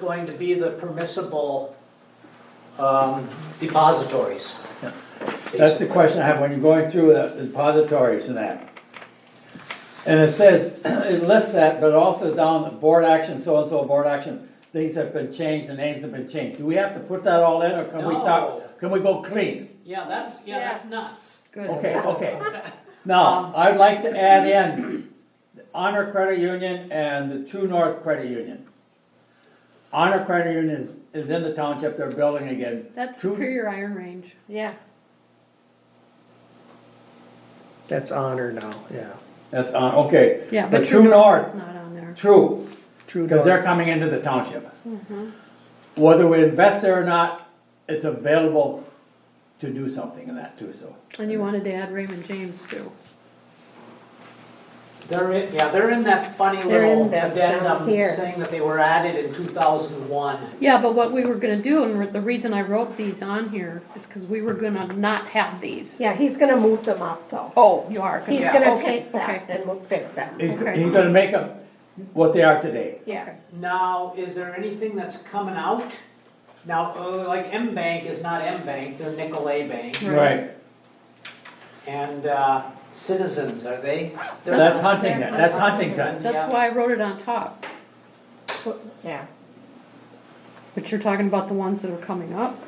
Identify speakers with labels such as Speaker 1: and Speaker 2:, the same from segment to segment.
Speaker 1: going to be the permissible um, depositories.
Speaker 2: That's the question I have when you're going through the depositories and that. And it says, it lists that, but also down the board action, so-and-so board action, things have been changed, the names have been changed. Do we have to put that all in, or can we
Speaker 1: No.
Speaker 2: stop, can we go clean?
Speaker 1: Yeah, that's, yeah, that's nuts.
Speaker 3: Good. Um,
Speaker 2: Okay, okay. Now, I'd like to add in Honor Credit Union and the True North Credit Union. Honor Credit Union is, is in the township, they're building again.
Speaker 3: That's
Speaker 2: True-
Speaker 3: Superior Iron Range. Yeah.
Speaker 4: That's honor now, yeah.
Speaker 2: That's on, okay.
Speaker 3: Yeah,
Speaker 2: But
Speaker 3: but
Speaker 2: True
Speaker 3: True North
Speaker 2: North,
Speaker 3: is not on there.
Speaker 2: True,
Speaker 4: True
Speaker 2: Because they're
Speaker 4: north.
Speaker 2: coming into the township. Whether we invest there or not, it's available to do something in that too, so.
Speaker 3: And you wanted to add Raymond James too.
Speaker 1: They're in, yeah, they're in that funny
Speaker 5: They're in
Speaker 1: little
Speaker 5: this down
Speaker 1: addendum
Speaker 5: here.
Speaker 1: saying that they were added in 2001.
Speaker 3: Yeah, but what we were gonna do, and the reason I wrote these on here, is because we were gonna not have these.
Speaker 5: Yeah, he's gonna move them up though.
Speaker 3: Oh, you are.
Speaker 5: He's
Speaker 3: yeah,
Speaker 5: gonna
Speaker 3: okay,
Speaker 5: take
Speaker 3: okay.
Speaker 5: that and we'll fix it.
Speaker 2: He's,
Speaker 3: Okay.
Speaker 2: he's gonna make them what they are today.
Speaker 5: Yeah.
Speaker 1: Now, is there anything that's coming out? Now, uh, like M Bank is not M Bank, they're Nicolay Bank.
Speaker 3: Right.
Speaker 1: And uh, Citizens, are they? they're
Speaker 2: That's
Speaker 1: not-
Speaker 2: Huntington, that's Huntington.
Speaker 1: Yeah.
Speaker 3: That's why I wrote it on top,
Speaker 5: Yeah,
Speaker 3: but you're talking about the ones that are coming up.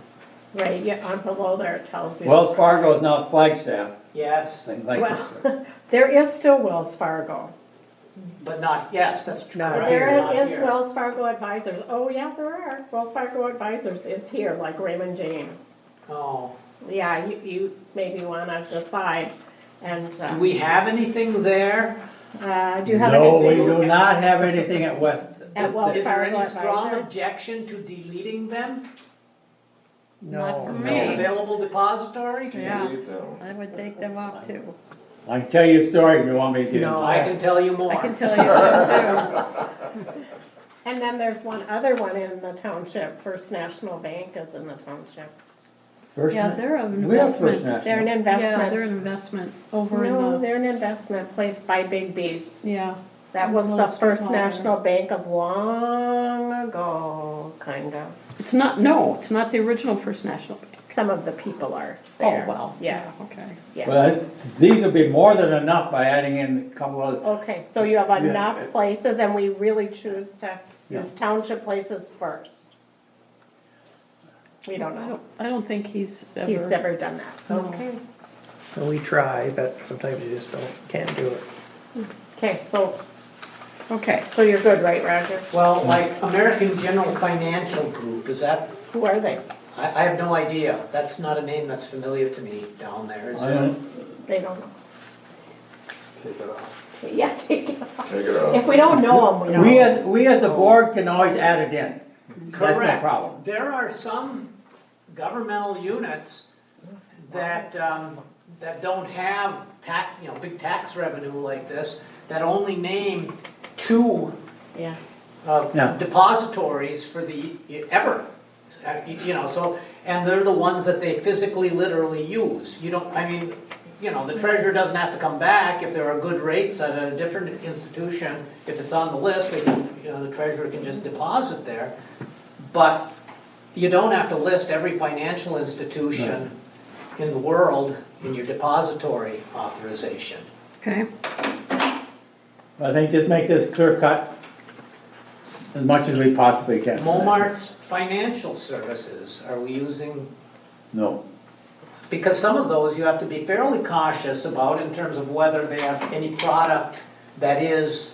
Speaker 5: right, yeah, on below there it tells you.
Speaker 2: Wells Fargo is now Flagstaff,
Speaker 1: Yes,
Speaker 2: things like that.
Speaker 5: Well, there is still Wells Fargo.
Speaker 1: but not, yes, that's true.
Speaker 4: Not
Speaker 1: right,
Speaker 4: here.
Speaker 5: There
Speaker 1: not
Speaker 5: is
Speaker 1: here.
Speaker 5: Wells Fargo Advisors. Oh, yeah, there are. Wells Fargo Advisors is here, like Raymond James.
Speaker 1: Oh.
Speaker 5: Yeah, you, you maybe wanna decide and,
Speaker 1: Do
Speaker 5: uh,
Speaker 1: we have anything there?
Speaker 5: uh, do you have
Speaker 2: No, we
Speaker 5: anything?
Speaker 2: do not have anything at West.
Speaker 3: Uh,
Speaker 5: At Wells
Speaker 1: Is there
Speaker 5: Fargo
Speaker 1: any strong
Speaker 5: Advisors?
Speaker 1: objection to deleting them?
Speaker 3: Not for
Speaker 4: No,
Speaker 3: me.
Speaker 1: An available depository?
Speaker 3: Yeah, I would take them off too.
Speaker 2: I can tell you a story if you want me to.
Speaker 4: No.
Speaker 1: I can tell you more.
Speaker 3: I can tell you some
Speaker 5: And then there's one other one in the township. First National Bank is in the township.
Speaker 3: too.
Speaker 2: First,
Speaker 3: Yeah, they're an
Speaker 2: we have First
Speaker 3: investment.
Speaker 5: They're an
Speaker 2: National.
Speaker 3: Yeah, they're an
Speaker 5: investment.
Speaker 3: investment over in
Speaker 5: No,
Speaker 3: the,
Speaker 5: they're an investment placed by Big B's.
Speaker 3: yeah.
Speaker 5: That was the
Speaker 3: Most of
Speaker 5: first
Speaker 3: all.
Speaker 5: national bank of long ago, kind of.
Speaker 3: It's not, no, it's not the original First National Bank.
Speaker 5: Some of the people are
Speaker 3: Oh,
Speaker 5: there.
Speaker 3: wow.
Speaker 5: Yes,
Speaker 3: Okay.
Speaker 5: yes.
Speaker 2: But these would be more than enough by adding in a couple of,
Speaker 5: Okay, so you have
Speaker 2: Yeah.
Speaker 5: enough places and we really choose to
Speaker 2: Yeah.
Speaker 5: use township places first. We don't
Speaker 3: I
Speaker 5: know.
Speaker 3: don't, I don't think he's ever.
Speaker 5: He's never done that.
Speaker 3: No.
Speaker 4: And we try, but sometimes you just don't, can't do it.
Speaker 5: Okay, so,
Speaker 3: Okay,
Speaker 5: so you're good, right, Roger?
Speaker 1: Well, like American General Financial Group, is that,
Speaker 5: Who are they?
Speaker 1: I, I have no idea. That's not a name that's familiar to me down there, is
Speaker 2: I
Speaker 1: it?
Speaker 2: don't,
Speaker 5: They don't know.
Speaker 6: Take it off.
Speaker 5: Yeah, take it off.
Speaker 6: Take it
Speaker 5: If
Speaker 6: off.
Speaker 5: we don't know them, we
Speaker 2: we
Speaker 5: don't.
Speaker 2: as, we as a board can always add it in. That's no
Speaker 1: Correct.
Speaker 2: problem.
Speaker 1: There are some governmental units that, um, that don't have tax, you know, big tax revenue like this, that only name two
Speaker 5: Yeah.
Speaker 2: Yeah.
Speaker 1: uh, depositories for the, ever. Uh, You you know, so, and they're the ones that they physically, literally use. You don't, I mean, you know, the treasurer doesn't have to come back if there are good rates at a different institution. If it's on the list, they can, you know, the treasurer can just deposit there. But you don't have to list every financial institution in the world in your depository authorization.
Speaker 3: okay,
Speaker 2: I think just make this clear cut as much as we possibly can.
Speaker 1: Momart's financial services, are we using
Speaker 2: No.
Speaker 1: Because some of those you have to be fairly cautious about in terms of whether they have any product that is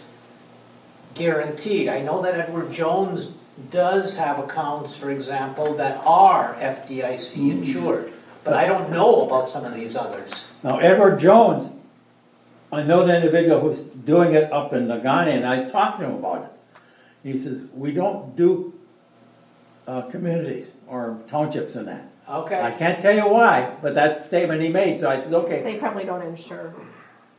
Speaker 1: guaranteed. I know that Edward Jones does have accounts, for example, that are FDIC
Speaker 2: Mm-hmm.
Speaker 1: insured, but I don't know about some of these others.
Speaker 2: Now Edward Jones, I know the individual who's doing it up in Nagani and I was talking to him about it. He says, we don't do, uh, communities or townships in that. I
Speaker 1: Okay,
Speaker 2: can't tell you why, but that's the statement he made, so I said, okay.
Speaker 5: They probably don't insure.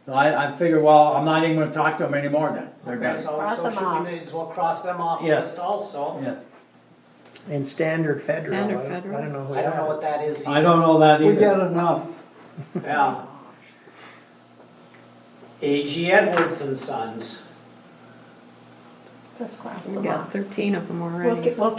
Speaker 2: So I, I figured, well, I'm not even gonna talk to him anymore then. They're
Speaker 1: okay,
Speaker 2: done.
Speaker 1: so
Speaker 5: Cross
Speaker 1: so
Speaker 5: them
Speaker 1: should we
Speaker 5: off.
Speaker 1: may as well cross them off the
Speaker 2: Yes.
Speaker 1: list also?
Speaker 2: Yes.
Speaker 4: And standard federal, I
Speaker 3: Standard
Speaker 4: don't, I
Speaker 3: federal.
Speaker 4: don't know who
Speaker 1: I don't know
Speaker 4: that
Speaker 1: what that is.
Speaker 2: I don't know that either.
Speaker 4: enough.
Speaker 1: Yeah. AG Edwards and Sons.
Speaker 5: this last
Speaker 3: We got
Speaker 5: month.
Speaker 3: thirteen of them
Speaker 5: We'll
Speaker 3: already.
Speaker 5: get, we'll